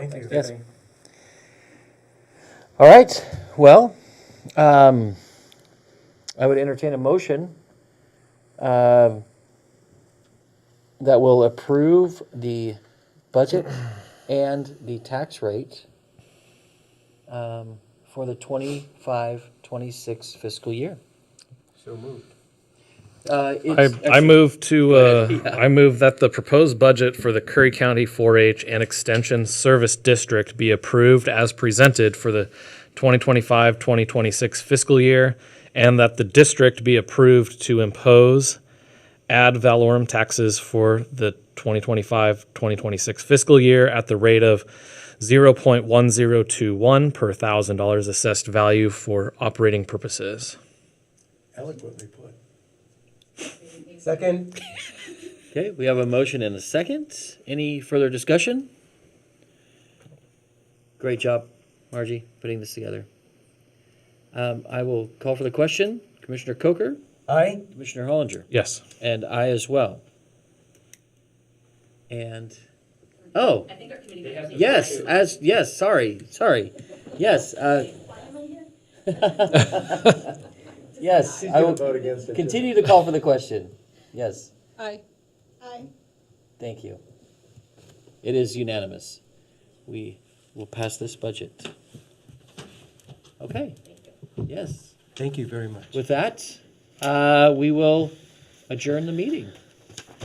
Thank you. Yes. All right, well, um, I would entertain a motion uh, that will approve the budget and the tax rate um, for the 25, 26 fiscal year. So moved. Uh, I, it's I actually- move to, uh, I move that the proposed budget for the Curry County 4-H and Extension Service District be approved as presented for the 2025, 2026 fiscal year, and that the district be approved to impose ad valorem taxes for the 2025, 2026 fiscal year at the rate of 0.1021 per thousand dollars assessed value for operating purposes. Eloquently put. Second? Okay, we have a motion and a second. Any further discussion? Great job, Margie, putting this together. Um, I will call for the question. Commissioner Coker, Aye? Commissioner Hollinger, Yes. and I as well. And, oh, I think our committee members need to yes, sign as, yes, sorry, sorry. Yes, uh, it. Why am I here? yes, I will vote against it. continue to call for the question. Yes. Aye. Aye. Thank you. It is unanimous. We will pass this budget. Okay, yes. Thank you very much. With that, uh, we will adjourn the meeting.